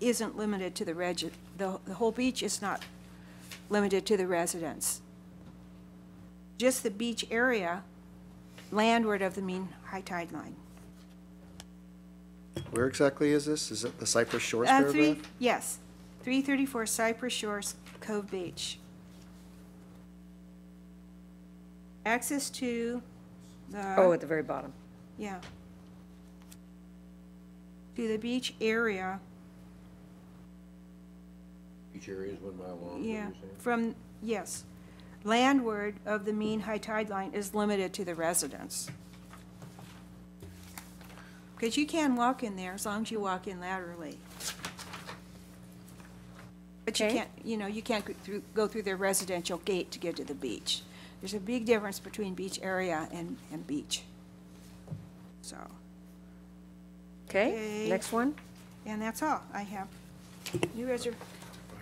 isn't limited to the regi, the, the whole beach is not limited to the residents. Just the beach area landward of the mean high tide line. Where exactly is this? Is it the Cypress Shores Uh, three, paragraph? yes, three thirty-four Cypress Shores Cove Beach. Access to the. Oh, at the very bottom. Yeah. To the beach area, Each area is one mile long, is what you're yeah, saying? from, yes. Landward of the mean high tide line is limited to the residents. Because you can walk in there as long as you walk in laterally. But you Okay. can't, you know, you can't go through, go through their residential gate to get to the beach. There's a big difference between beach area and, and beach. So, Okay, Okay. next one? and that's all I have. New reserv,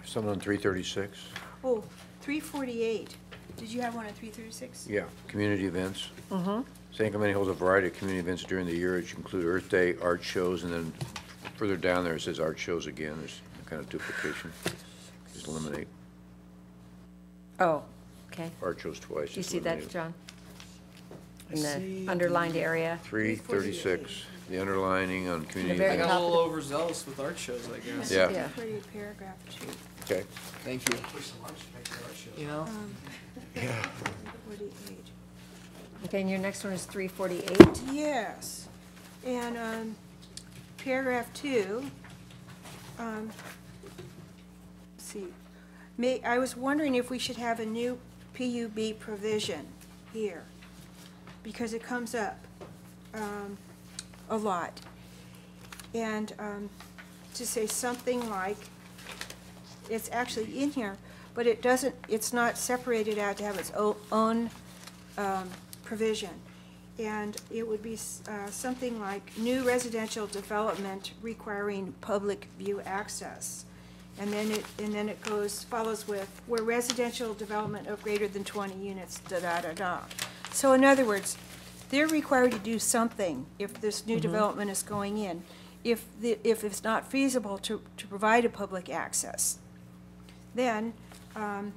Something on three thirty-six? Oh, 348. Did you have one at 336? Yeah, community events. Mm-hmm. San Clemente holds a variety of community events during the year, which include Earth Day, art shows, and then further down there, it says art shows again, there's kind of duplication. Just eliminate Oh, okay. art shows twice. Do you just see that, eliminate it. John? In the underlined area? Three thirty-six, the underlining on community very I got events. a little overzealous with art shows, I guess. Yeah, Yeah. Pretty paragraph two. okay. Thank you. You know? Yeah. 348. Okay, and your next one is 348? Yes. And um, paragraph two, um, let's see, may, I was wondering if we should have a new PUB provision here, because it comes up um, a lot. And um, to say something like, it's actually in here, but it doesn't, it's not separated out to have its o- own um, provision. And it would be s- uh, something like new residential development requiring public view access. And then it, and then it goes, follows with, where residential development of greater than 20 units, da-da-da-da. So in other words, they're required to do something if this Mm-hmm. new development is going in, if, the if it's not feasible to, to provide a public access. Then, um,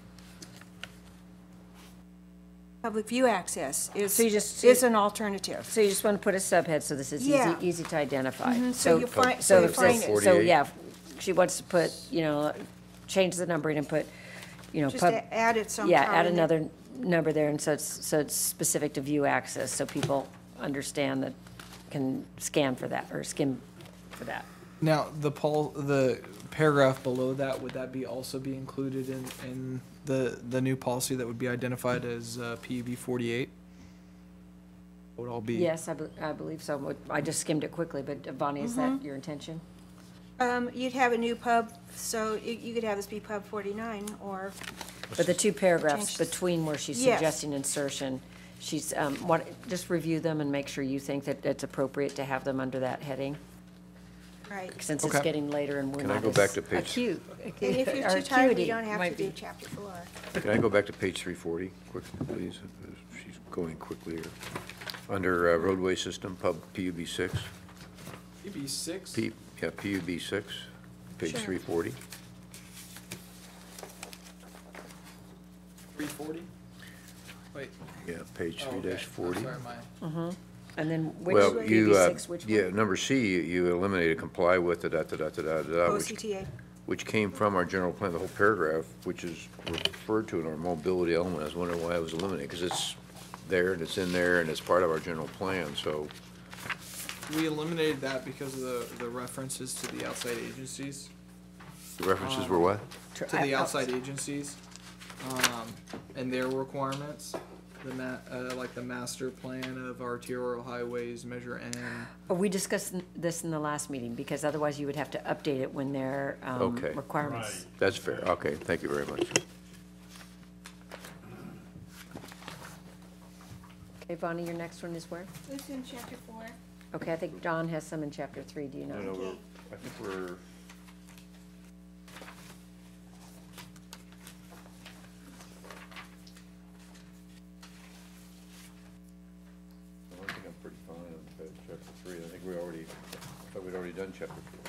public view access is, So you just- is an alternative. So you just want to put a subhead so this is easy, Yeah. Mm-hmm, easy to identify? so you find- so you if find this- it. So, yeah, she wants to put, you know, change the numbering and put, you know, Just pub, a- add it sometime. yeah, add in there. another number there, and so it's, so it's specific to view access, so people understand that, can scan for that, or skim for that. Now, the Paul, the paragraph below that, would that be also be included in, in the, the new policy that would be identified as, uh, PUB forty-eight? Would all be? Yes, I, be- I believe so. What- I just skimmed it quickly, but Bonnie, is that Mm-hmm. your intention? Um, you'd have a new pub, so you, you could have this be pub 49, or, But the two paragraphs Change this. between where she's Yes. suggesting insertion, she's, um, what, just review them and make sure you think that it's appropriate to have them under that heading, right. since it's Okay. getting later and we're Can I not go as back to page- acute. And if you're our too tired, you acuity don't have to might do be- chapter four. Can I go back to page three forty, quickly, please? She's going quickly here. Under uh, roadway system, pub, PUB six. PUB E six? P, E yeah, PUB six, page Sure. three forty. Three forty? Wait. Yeah, page oh, three okay. I'm E dash forty. Sorry, my. And then which, Well, you, uh, PB six, which yeah, one? number C, you- you eliminated comply with the da-da-da-da-da-da, Uh, Oh, which, OCTA, which came from our general plan, the whole paragraph, which is referred to in our mobility element. I was wondering why it was eliminated, because it's there and it's in there and it's part of our general plan, so, We eliminated that because of the, the references to the outside agencies. the references Oh. were what? Tr- to I- the I- outside agencies, um, and their requirements. The ma- uh, like the master plan of arterial highways, measure N. Oh, We discussed n- this in the last meeting, because otherwise you would have to update it when their, um, Okay. requirements. That's fair, okay, thank you very much. Okay, Bonnie, your next one is where? it's in chapter four. Okay, I think John has some in chapter three, do you know? Okay. I think we're. I think I'm pretty fine on chapter three, I think we already, I thought we'd already done chapter four.